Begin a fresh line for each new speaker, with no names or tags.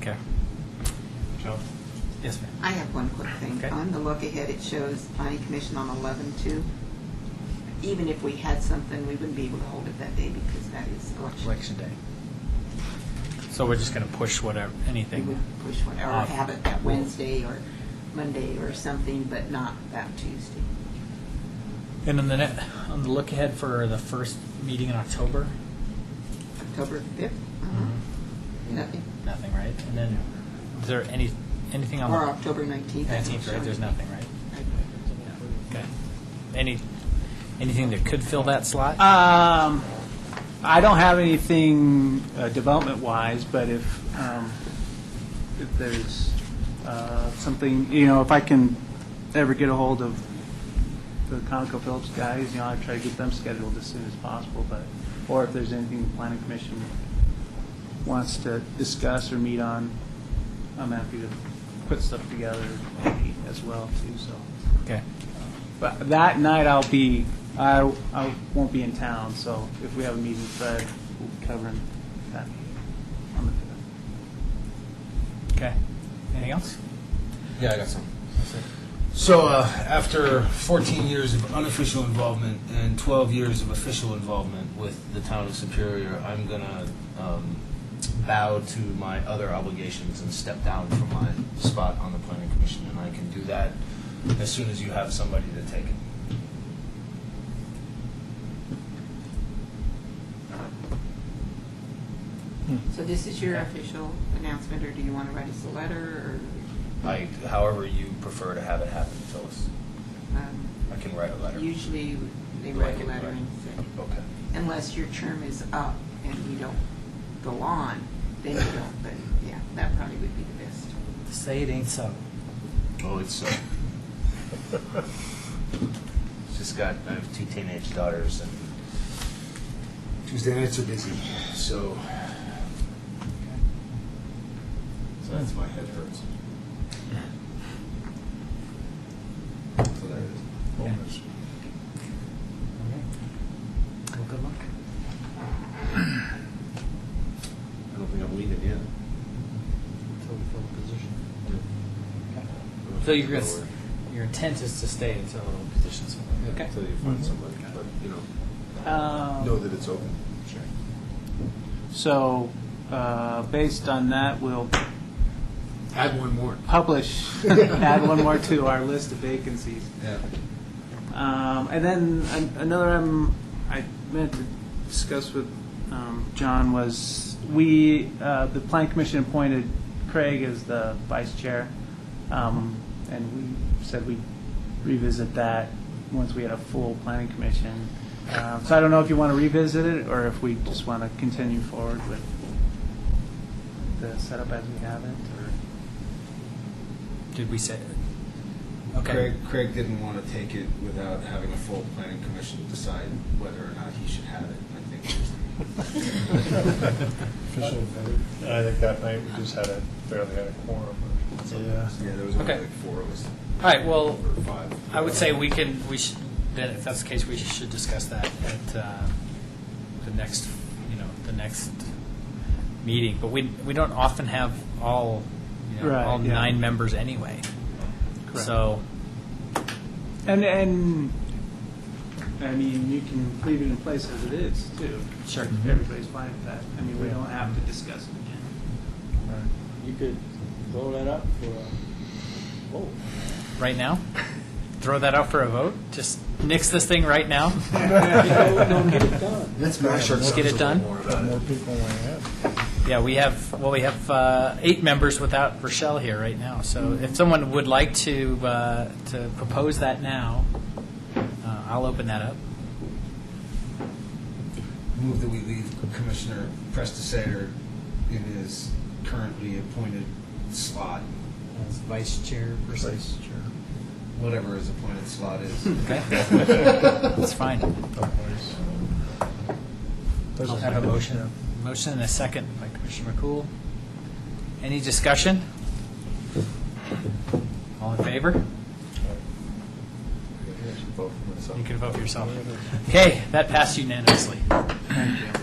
Okay.
Joe?
Yes, ma'am.
I have one quick thing.
Okay.
On the look ahead, it shows planning commission on eleven two. Even if we had something, we wouldn't be able to hold it that day because that is election.
Election day. So we're just going to push whatever,
We
anything. Uh,
would push whatever,
Off.
have it that Wednesday or Monday or something, but not that Tuesday.
And on the net, on the look ahead for the first meeting in October,
October fifth?
Mm-hmm.
Nothing.
nothing, right? And then, is there any, anything on
Or
the
October nineteenth.
nineteenth, right? There's nothing, right? Okay. Any, anything that could fill that slot?
Um, I don't have anything uh, development-wise, but if, um, if there's uh, something, you know, if I can ever get a hold of the ConocoPhillips guys, you know, I try to get them scheduled as soon as possible, but, or if there's anything the planning commission wants to discuss or meet on, I'm happy to put stuff together and meet as well, too, so.
Okay.
But that night I'll be, I, I won't be in town, so if we have a meeting, Fred will be covering that meeting on the fifth.
Okay. Anything else?
Yeah, I got some. So uh, after 14 years of unofficial involvement and 12 years of official involvement with the town of Superior, I'm gonna um, bow to my other obligations and step down from my spot on the planning commission, and I can do that as soon as you have somebody to take it.
So this is your official announcement, or do you want to write us a letter,
I, however you prefer to have it happen, Phyllis.
or, um,
I can write a letter.
usually they write a
Right,
letter
right.
and send.
Okay.
unless your term is up and you don't go on, then you don't, but yeah, that probably would be the best.
Say it ain't so.
Oh, it's. Uh, just got. I have two teenage daughters, and Tuesday nights are busy. So. So that's my head hurts. So there
Yeah.
it is.
Well, good luck.
I don't think I'm leaving yet.
Until we fill the position. So you're gonna, s- your intent is to stay until the position's filled? Okay.
Until you
Mm-hmm.
find somebody, but you know, know
Um,
that it's open. Sure.
So, uh, based on that, we'll
Add one more.
publish, add one more to our list of vacancies.
Yeah.
Um, and then an- another item I meant to discuss with um, John was we, uh, the Plan Commission appointed Craig as the vice chair. Um, and we said we'd revisit that once we had a full planning commission. Um, so I don't know if you want to revisit it or if we just want to continue forward with the setup as we have it. Or,
Did we say?
Craig,
Okay.
Craig didn't want to take it without having a full planning commission decide whether or not he should have it, I think. Uh,
I think that night we just had a, barely had a quorum.
Yeah. Yeah, there was only
Okay.
like four of us.
All right, well,
Or five.
I would say we can, we should, then if that's the case, we should discuss that at uh, the next, you know, the next meeting. But we, we don't often have all, you know,
Right,
all
yeah.
nine members anyway. So,
And, and, I mean, you can leave it in place as it is, too.
Sure.
If Everybody's fine with that. I mean, we don't have to discuss it again.
You could blow that up for a vote.
right now, throw that out for a vote? Just nix this thing right now?
Don't don't get it done.
Let's mash our
Let's get it done.
tongues a little More about it.
More people want to have.
Yeah, we have, well, we have uh, eight members without Rochelle here right now. So if someone would like to, uh, to propose that now, uh, I'll open that up.
Move that we leave Commissioner Prestisator in his currently appointed slot,
as vice chair person.
whatever his appointed slot is.
Okay, that's fine. I'll have a motion. Motion and a second by Commissioner McCool. Any discussion? All in favor? You can vote for yourself. Okay, that passed unanimously.
Thank you.